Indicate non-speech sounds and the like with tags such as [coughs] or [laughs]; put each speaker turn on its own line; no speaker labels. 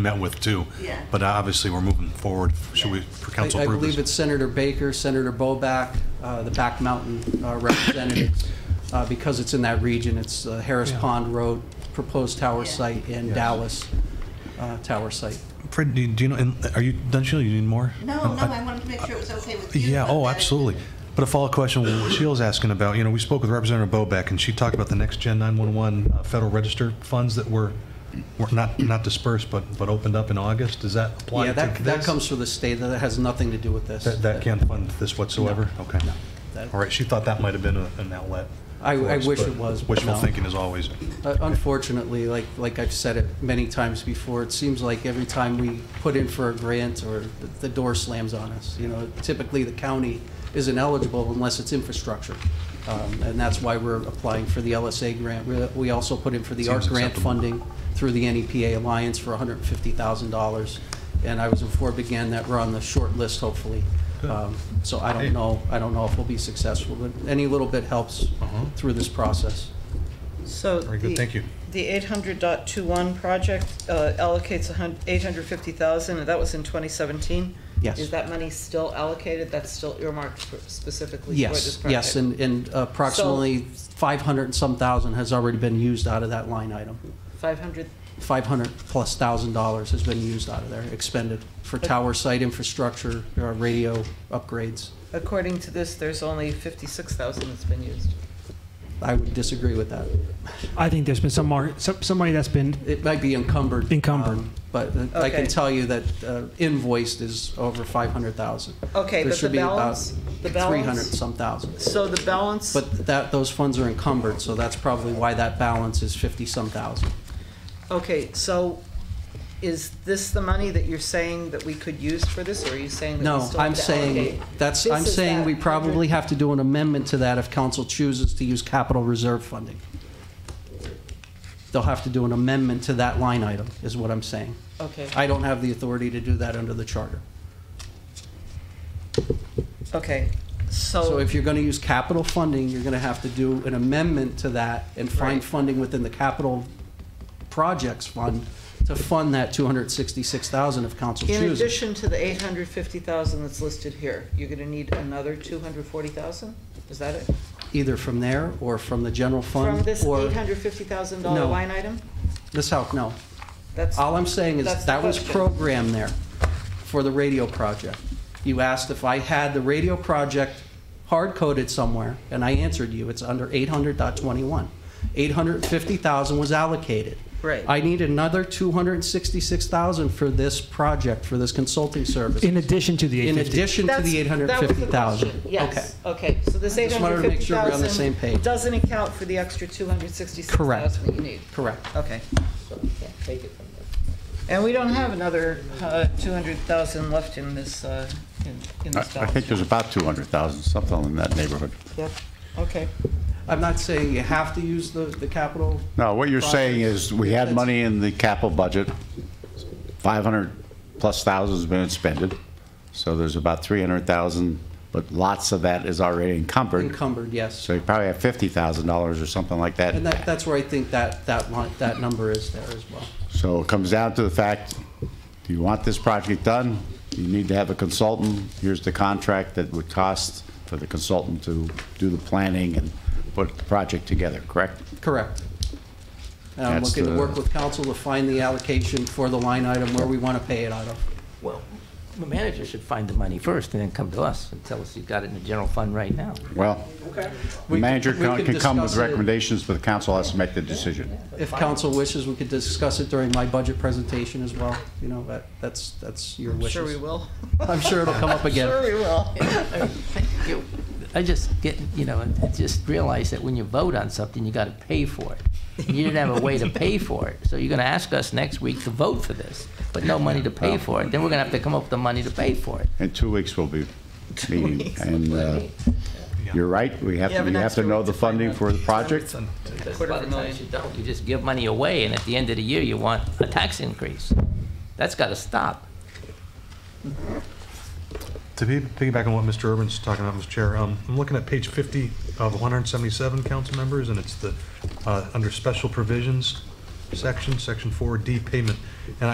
met with too.
Yeah.
But uh, obviously, we're moving forward. Should we, for
I
council
I believe
purposes?
it's Senator Baker, Senator Boback, uh, the Back Mountain uh,
[coughs]
representatives, uh, because it's in that region. It's uh, Harris Pond Road, proposed tower
Yeah.
site, and Dallas uh, tower site.
Fred, do you, do you know? and Are you done, Sheila? You need more?
No, no, I wanted to make sure it was okay with you.
Oh, Yeah,
but
oh,
that-
absolutely. But a follow-up question, what Sheila's asking about, you know, we spoke with Representative Boback, and she talked about the next Gen 911 uh, Federal Register funds that were, were not, not dispersed, but, but opened up in August. Does that apply
Yeah,
to
that, that
this?
comes from the state, that has nothing to do with this.
That, that can't fund this whatsoever? Okay.
That-
All right, she thought that might have been a- an outlet.
I-
for
I
us,
wish
but
it was, but
Wishful
no.
thinking is always.
Uh, Unfortunately, like, like I've said it many times before, it seems like every time we put in for a grant or the- the door slams on us. You know, typically the county isn't eligible unless it's infrastructure. Um, And that's why we're applying for the LSA grant. We- We also put in for the
Seems
ARC grant
acceptable.
funding through the NEPA Alliance for $150,000. And I was informed again that we're on the short list, hopefully. Um, So
Hey.
I don't know, I don't know if we'll be successful, but any little bit helps
Uh-huh.
through this process.
So.
Very good,
the-
thank you.
The 800.21 project uh, allocates a hun- 850,000, and that was in 2017?
Yes.
Is that money still allocated? That's still earmarked for- specifically for this
Yes,
project?
yes, and, and uh, approximately 500 and some thousand has already been used out of that line item.
500,
500 plus thousand dollars has been used out of there, expended for tower site infrastructure, uh, radio upgrades.
according to this, there's only 56,000 that's been used.
I would disagree with that.
I think there's been some mar- some somebody that's been
It might be encumbered.
Encumbered.
um, But uh, I
Okay.
can tell you that uh, invoiced is over 500,000. There
Okay, but the
should be about
balance, the
300 and
balance,
some thousand.
so the balance,
But that, those funds are encumbered, so that's probably why that balance is 50-some thousand.
okay, so is this the money that you're saying that we could use for this, or are you saying that we
No,
still
I'm
have to allocate?
saying, that's,
This
I'm
is
saying
that
we probably
100
have to do an amendment to that if council chooses to use capital reserve funding. They'll have to do an amendment to that line item, is what I'm saying.
Okay.
I don't have the authority to do that under the charter.
Okay,
So
so,
if you're gonna use capital funding, you're gonna have to do an amendment to that and find
Right.
funding within the capital projects fund to fund that two hundred sixty-six thousand if council
in
chooses.
addition to the eight hundred fifty thousand that's listed here, you're gonna need another two hundred forty thousand? Is that it?
Either from there or from the general fund.
From this
or-
eight hundred fifty thousand dollar
No.
line item?
This how, no,
That's,
All I'm saying
That's
is
the
that was
question.
programmed there for the radio project. You asked if I had the radio project hard-coded somewhere, and I answered you, it's under 800.21. 850,000 was allocated.
Right.
I need another 266,000 for this project, for this consulting service.
in addition to the
In
850.
addition to
That's-
the
that was the
850,000.
question. Yes, okay, so this eight
just wanted
hundred
to make
fifty
sure we're on the same
thousand
page.
doesn't account for the extra two hundred sixty-six
Correct.
thousand that you need?
Correct.
Okay. So we can't take it from there. And we don't have another uh, two hundred thousand left in this, uh, in in
I
this
I
balance.
think there's about 200,000, something in that neighborhood.
Yep, okay.
I'm not saying you have to use the, the capital.
No, what you're saying
projects.
is, we had
That's-
money in the capital budget, 500-plus thousand's been expended, so there's about 300,000, but lots of that is already encumbered,
Encumbered, yes.
so you probably have $50,000 or something like
And
that.
that, that's where I think that, that line, that number is there as well.
So it comes down to the fact, do you want this project done? You need to have a consultant, here's the contract that would cost for the consultant to do the planning and put the project together, correct?
Correct. And I'm
That's
looking to
the-
work with council to find the allocation for the line item where we want to pay it out of.
Well, the manager should find the money first and then come to us and tell us you've got it in the general fund right now.
Well,
We
the manager
could- we
can
could
can come with
discuss it.
recommendations, but the council has to make the decision.
If council wishes, we could discuss it during my budget presentation as well, you know, that, that's, that's your
I'm
wishes.
Sure we will.
I'm sure it'll come
[laughs]
up again.
Sure we will.
I just get, you know, I just realize that when you vote on something, you gotta pay for it. You didn't have a way to pay for it, so you're gonna ask us next week to vote for this, but no money to pay for it, then we're gonna have to come up with the money to pay for it.
In two weeks, we'll be
[laughs]
meeting. And uh, you're right, we have,
You have
to.
an
you have
extra
to know
week
the
to find
funding
out.
for the project.
Because a
Quarter of
lot
a
of times
million.
you don't, you just give money away, and at the end of the year, you want a tax increase. That's gotta stop.
To be- piggyback on what Mr. Urban's talking about, Mr. Chair, um, I'm looking at page 50 of 177 council members, and it's the, uh, under special provisions section, section 4D payment. And